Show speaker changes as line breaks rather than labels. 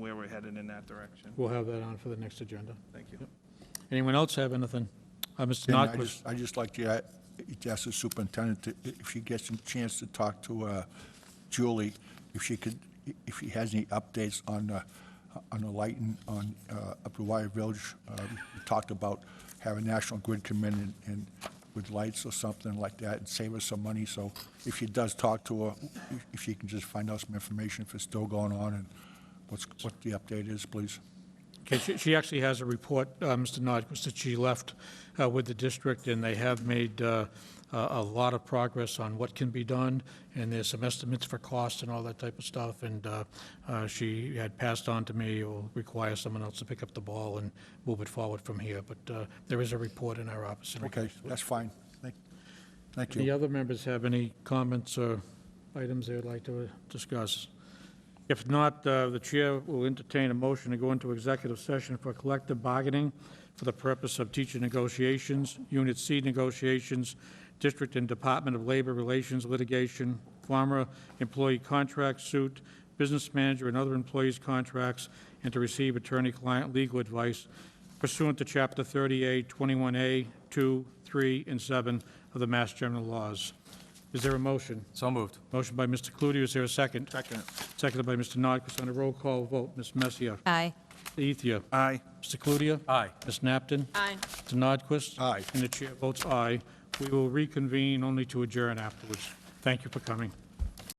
we're headed in that direction.
We'll have that on for the next agenda.
Thank you.
Anyone else have anything? Uh, Mr.
And I
Notquist,
just, I just like to, uh, to ask the superintendent to- if she gets a chance to talk to uh, Julie, if she could, if she has any updates on, uh, on the lighting on, uh, up to Wire Village. Uh, We Talked about having National Grid come in and- and with lights or something like that and save us some money. So if she does talk to her, if- if she can just find out some information if it's still going on and what's, what the update is, please.
okay, she, she actually has a report, uh, Mr. Notquist, that she left uh, with the district, and they have made uh, a a lot of progress on what can be done, and there's some estimates for cost and all that type of stuff, and uh, uh, she had passed on to me, it will require someone else to pick up the ball and move it forward from here, but uh, there is a report in our office. in
Okay,
regards to it.
that's fine. Thank- Thank you.
Any other members have any comments or items they would like to uh, discuss? If not, uh, the chair will entertain a motion to go into executive session for collective bargaining for the purpose of teacher negotiations, Unit C negotiations, District and Department of Labor Relations litigation, former employee contract suit, business manager and other employees' contracts, and to receive attorney-client legal advice pursuant to Chapter 38, 21A, 2, 3, and 7 of the Mass General Laws. Is there a motion?
So moved.
Motion by Mr. Cludier, is there a second?
Second.
Seconded by Mr. Nordquist, on a roll call vote, Ms. Messier.
Aye.
Ethia.
Aye.
Mr. Cludier.
Aye.
Ms. Napton.
Aye.
Mr. Nordquist.
Aye.
And the chair votes aye. We will reconvene only to adjourn afterwards. Thank you for coming.